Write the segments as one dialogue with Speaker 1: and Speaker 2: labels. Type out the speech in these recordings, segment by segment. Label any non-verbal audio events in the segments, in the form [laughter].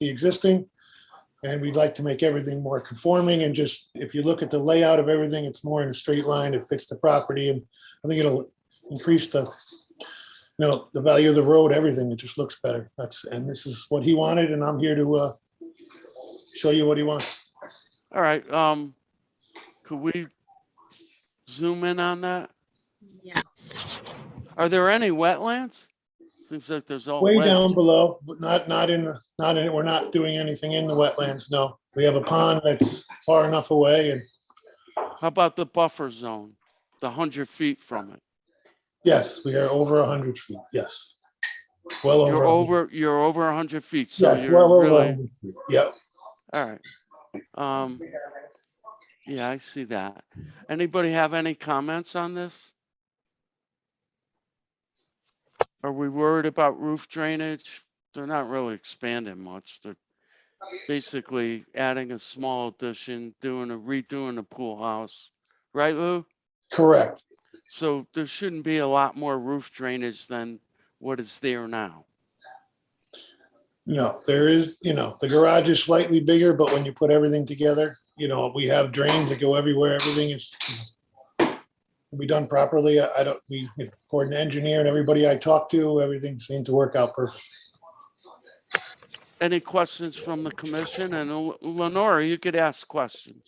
Speaker 1: the existing. And we'd like to make everything more conforming and just, if you look at the layout of everything, it's more in a straight line. It fits the property and I think it'll increase the, you know, the value of the road, everything. It just looks better. That's, and this is what he wanted and I'm here to, uh, show you what he wants.
Speaker 2: All right, um, could we zoom in on that?
Speaker 3: Yes.
Speaker 2: Are there any wetlands? Seems like there's all
Speaker 1: Way down
Speaker 2: wetlands.
Speaker 1: below, but not, not in, the not in, it. we're not doing anything in the wetlands, no. We have a pond that's far enough away and,
Speaker 2: How about the buffer zone? The hundred feet from it?
Speaker 1: yes, we are over a hundred feet, yes. Well over.
Speaker 2: You're
Speaker 1: 100.
Speaker 2: over, you're over hundred feet, so
Speaker 1: Yeah, well
Speaker 2: you're
Speaker 1: over
Speaker 2: really,
Speaker 1: 100 feet. Yep.
Speaker 2: all right. Um, yeah, I see that. Anybody have any comments on this? Are we worried about roof drainage? They're not really expanding much. They're basically adding a small addition, doing a redoing the pool house. Right, Lou?
Speaker 1: Correct,
Speaker 2: So there shouldn't be a lot more roof drainage than what is there now.
Speaker 1: no, there is, you know, the garage is slightly bigger, but when you put everything together, you know, we have drains that go everywhere, everything is you know, be done properly, I I don't, we, according to engineer and everybody I talked to, everything seemed to work out perfect.
Speaker 2: Any questions from the commission? And L- Lenora, you could ask questions.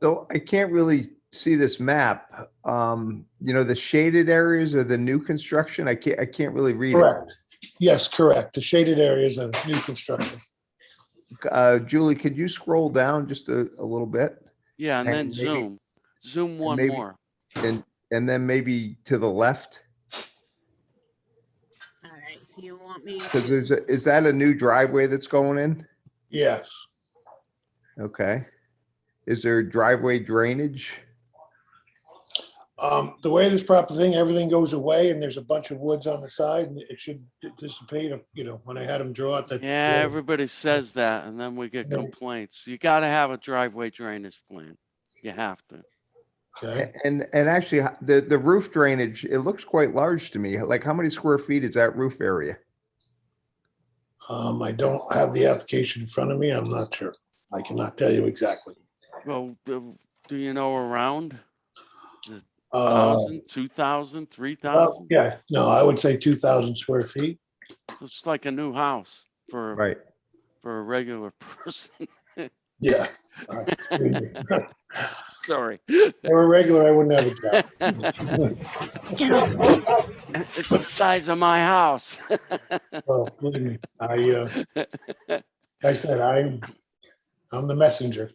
Speaker 4: So I can't really see this map. Um, you know, the shaded areas are the new construction. I can't, I can't really read it.
Speaker 1: Correct, yes, correct, the shaded areas of new construction,
Speaker 4: Uh, Julie, could you scroll down just a, a little bit?
Speaker 2: Yeah, and then
Speaker 4: And maybe-
Speaker 2: zoom, zoom one
Speaker 4: maybe-
Speaker 2: more.
Speaker 4: And, and then maybe to the left?
Speaker 3: All right, so you want me
Speaker 4: Because
Speaker 3: to,
Speaker 4: there's, a- is that a new driveway that's going in?
Speaker 1: yes,
Speaker 4: Okay. Is there driveway drainage?
Speaker 1: um, the way this proper thing, everything goes away, and there's a bunch of woods on the side, and it should dissipate, you know, when I had him draw it, that's.
Speaker 2: Yeah, everybody says that and then we get
Speaker 1: No.
Speaker 2: complaints. You gotta have a driveway drainage plan. You have to.
Speaker 1: Okay.
Speaker 4: A- And, and actually, h- the, the roof drainage, it looks quite large to me. Like, how many square feet is that roof area?
Speaker 1: Um, I don't have the application in front of me. I'm not sure. I cannot tell you exactly.
Speaker 2: Well, do do you know around
Speaker 1: Uh,
Speaker 2: thousand, two thousand, three
Speaker 1: well,
Speaker 2: thousand?
Speaker 1: yeah, no, I would say two thousand square feet.
Speaker 2: It's like a new house for,
Speaker 4: Right.
Speaker 2: for a regular [laughs] person.
Speaker 1: Yeah. All right. If
Speaker 2: Sorry.
Speaker 1: They were regular, I wouldn't have a job.
Speaker 2: It's
Speaker 3: get off me.
Speaker 2: the size of my house. [laughs]
Speaker 1: Oh, believe me, I, uh, I said, I'm, I'm the messenger.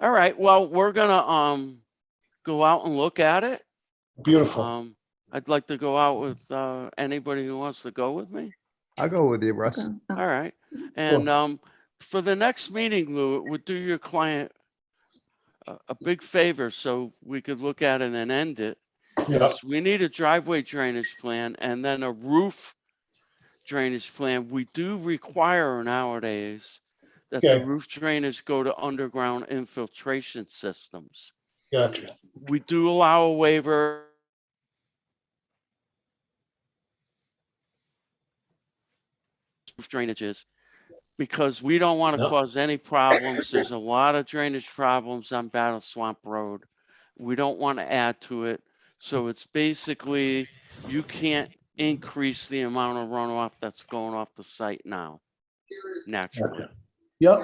Speaker 2: All right, well, we're gonna, um, go out and look at it.
Speaker 1: Beautiful.
Speaker 2: Um, I'd like to go out with, uh, anybody who wants to go with me.
Speaker 4: I'll go with you, Russ.
Speaker 2: All right. And, um, for the next meeting, Lou, it would do your client a, a big favor so we could look at it and end it.
Speaker 1: Yeah,
Speaker 2: Yes, we need a driveway drainage plan and then a roof drainage plan. We do require nowadays that the
Speaker 1: Okay.
Speaker 2: roof drainage go to underground infiltration systems.
Speaker 1: gotcha.
Speaker 2: We do allow a waiver. Roof drainages, because we don't want to
Speaker 1: No.
Speaker 2: cause any problems. There's a lot of drainage problems on Battle Swamp Road. We don't want to add to it. So it's basically, you can't increase the amount of runoff that's going off the site now. Naturally,
Speaker 1: gotcha. Yep,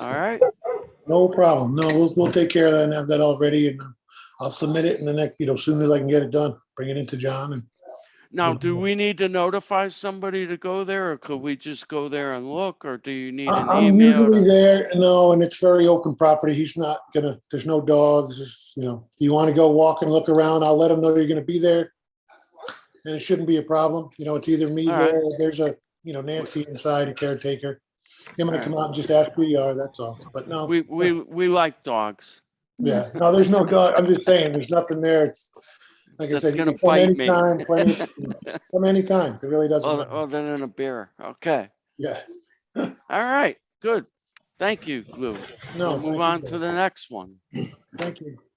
Speaker 2: all right?
Speaker 1: no problem. No, we'll, we'll take care of that and have that all ready and I'll submit it in the next, you know, soon as I can get it done, bring it into John and
Speaker 2: Now, do
Speaker 1: Mhm.
Speaker 2: we need to notify somebody to go there or could we just go there and look or do you need
Speaker 1: I-
Speaker 2: an
Speaker 1: I'm usually
Speaker 2: email?
Speaker 1: there, no, and it's very open property. He's not gonna, there's no dogs, it's, you know, you want to go walk and look around, I'll let him know you're gonna be there. And it shouldn't be a problem, you know, it's either me
Speaker 2: All right.
Speaker 1: there, or there's a, you know, Nancy inside, a caretaker. He
Speaker 2: All
Speaker 1: might
Speaker 2: right.
Speaker 1: come out and just ask who you are, that's all, but no,
Speaker 2: We, we, we like dogs.
Speaker 1: yeah, no, there's no dog, I'm just saying, there's nothing there, it's, like I
Speaker 2: That's
Speaker 1: said. you
Speaker 2: gonna
Speaker 1: can come
Speaker 2: bite me.
Speaker 1: anytime,
Speaker 2: [laughs]
Speaker 1: plenty- Come anytime, it really doesn't,
Speaker 2: Other,
Speaker 1: matter.
Speaker 2: other than a bear. Okay.
Speaker 1: yeah,
Speaker 2: All right. Good. Thank you, Lou.
Speaker 1: no.
Speaker 2: We'll move on to the next one.
Speaker 1: Thank you.